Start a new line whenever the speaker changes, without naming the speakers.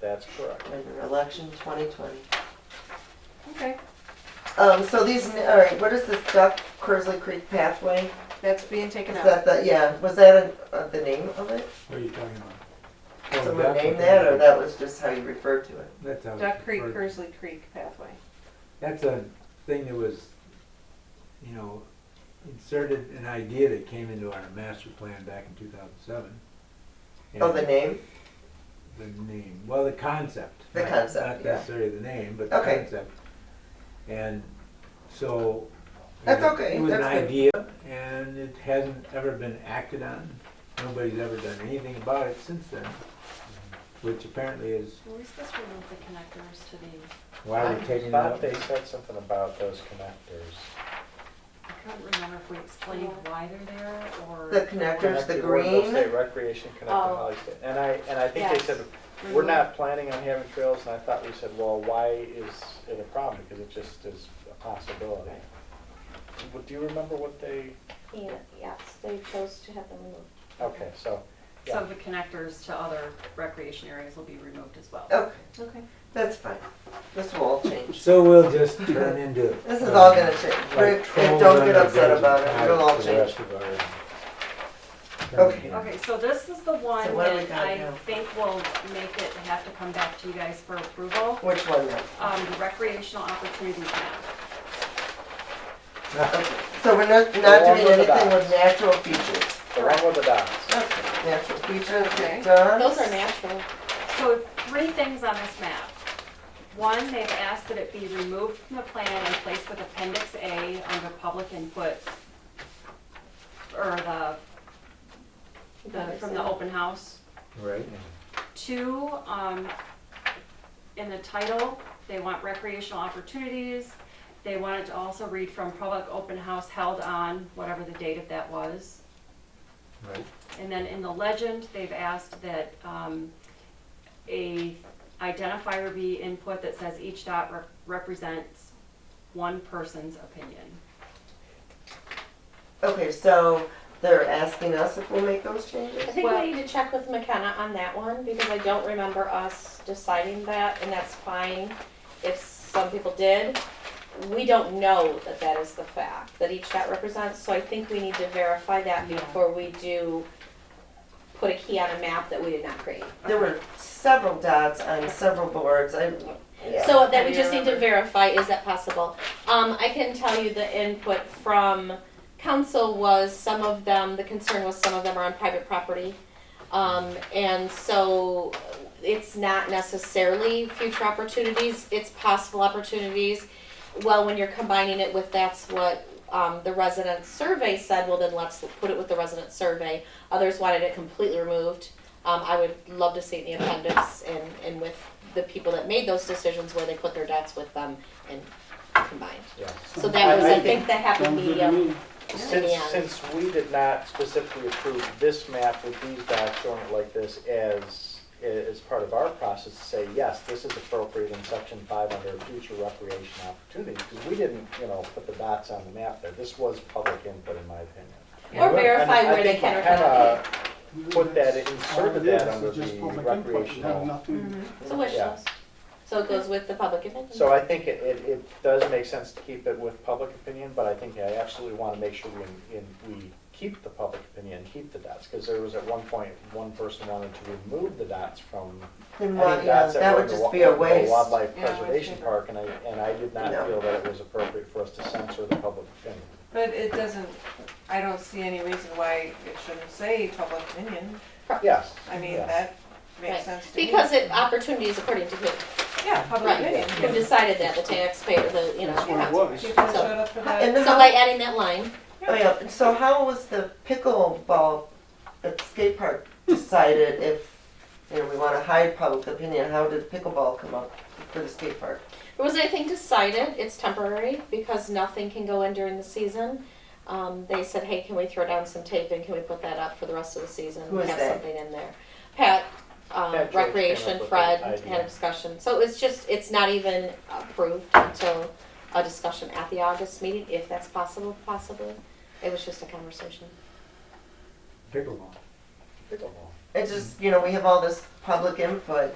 That's correct.
under election 2020.
Okay,
Um, so these, all right, what is this Duck Cursley Creek pathway?
that's being taken
Is
out.
that the, yeah, was that a- uh, the name of it?
What are you talking about? Oh,
Someone
that's
named
what
that,
they-
or that was just how you referred to it?
That's how.
Duck Creek,
or-
Kersley Creek pathway.
That's a thing that was, you know, inserted, an idea that came into our master plan back in two thousand seven.
Oh, the name?
The name, well, the concept.
The
not-
concept,
Not
yeah.
necessarily the name, but the
Okay.
concept. And so. it
That's
was-
okay,
It was an
that's good.
idea, and it hasn't ever been acted on. Nobody's ever done anything about it since then, which apparently is
Where's this remove the connectors to the,
why we're taking it
Thought
out.
they said something about those connectors.
I couldn't remember if we explained why they're there or.
The connectors, the
Connected Warrenville
green?
State Recreation connected
Oh.
Holly State. And I, and I think they
Yes.
said, we're
Remove-
not planning on having trails, and I thought we said, well, why is it a problem? Because it just is a possibility. But Do you remember what they,
Yeah, yes, they chose to have them removed.
okay, so, yeah.
So the connectors to other recreation areas will be removed as well.
Okay,
Okay.
that's fine. This will all change.
So we'll just turn into. uh,
This is
Um,
all gonna change. Rick, and don't get upset about it. It'll all change. Okay.
Okay, so this is the
So
one
what do we
that
got
I
now?
think will make it have to come back to you guys for approval,
Which one now?
um, the recreational opportunity plan.
So we're not, not
The one
doing
with the
anything with
dots.
natural features.
The one with the dots.
Okay, natural features,
Okay.
done.
Those are natural.
So three things on this map. One, they've asked that it be removed from the plan and placed with appendix A under public input. Or the, the, uh, from the open house.
Right.
Two, um, in the title, they want recreational opportunities. They want it to also read from public open house held on, whatever the date of that was.
Right.
And then in the legend, they've asked that um, a identifier be input that says each dot rep- represents one person's opinion.
Okay, so they're asking us if we'll make those changes?
I think
Well-
we need to check with McKenna on that one because I don't remember us deciding that, and that's fine if some people did. We don't know that that is the fact, that each that represents, so I think we need to verify that
Yeah.
before we do put a key on a map that we did not create.
There were several dots on several boards. I, yeah.
So that
I
we
do
just need to
remember.
verify, is that possible? Um, I can tell you the input from council was some of them, the concern was some of them are on private property. Um, and so it's not necessarily future opportunities, it's possible opportunities. Well, when you're combining it with, that's what, um, the resident survey said, well, then let's put it with the resident survey. Others wanted it completely removed. Um, I would love to see it in the appendix and, and with the people that made those decisions where they put their dots with them and combined.
Yeah.
So that was,
I- I
I think, the happy
Sounds good to
medium.
me.
Since,
Yeah.
since we did not specifically approve this map with these dots showing it like this as, as part of our process to say, yes, this is appropriate in section five under future recreation opportunities, because we didn't, you know, put the dots on the map there. This was public input, in my opinion.
Or verify
And I
where they
think
can or
McKenna
cannot
Put that,
All it
inserted
is,
that
is
under
just
the
public input. It has
recreational.
nothing-
It's a wish
Yeah.
list. So it goes with the public opinion.
So I think it, it, it does make sense to keep it with public opinion, but I think I absolutely want to make sure we, in, we keep the public opinion, and keep the dots, because there was at one point, one person wanted to remove the dots from
Then
any
why- yeah,
dots that
that
were
would
in the
just
wa-
be a
in the
waste.
Wildlife
Yeah, I would
Preservation
say that.
Park, and I, and I did not
No.
feel that it was appropriate for us to censor the public opinion.
But it doesn't, I don't see any reason why it shouldn't say public opinion.
Yes.
I mean,
yes.
that
Right.
makes sense to me.
Because it, opportunities according to who,
Yeah, public
right,
opinion.
who decided that, the taxpayer, the, you know.
That's what it
council.
was.
People showed up for that.
And
So
then
by
how,
adding that line,
oh yeah, and so how was the pickleball at the skate park decided if, you know, we wanna hide public opinion, how did pickleball come up for the skate park?
was anything decided, it's temporary, because nothing can go in during the season. Um, they said, hey, can we throw down some tape and can we put that up for the rest of the season?
Who is
Have
they?
something in there. Pat,
Pat George
um,
came up
Recreation,
with
Fred,
the idea.
had a discussion, so it's just, it's not even approved until a discussion at the August meeting, if that's possible, possibly. It was just a conversation.
Pickleball.
Pickleball.
It's just, you know, we have all this public input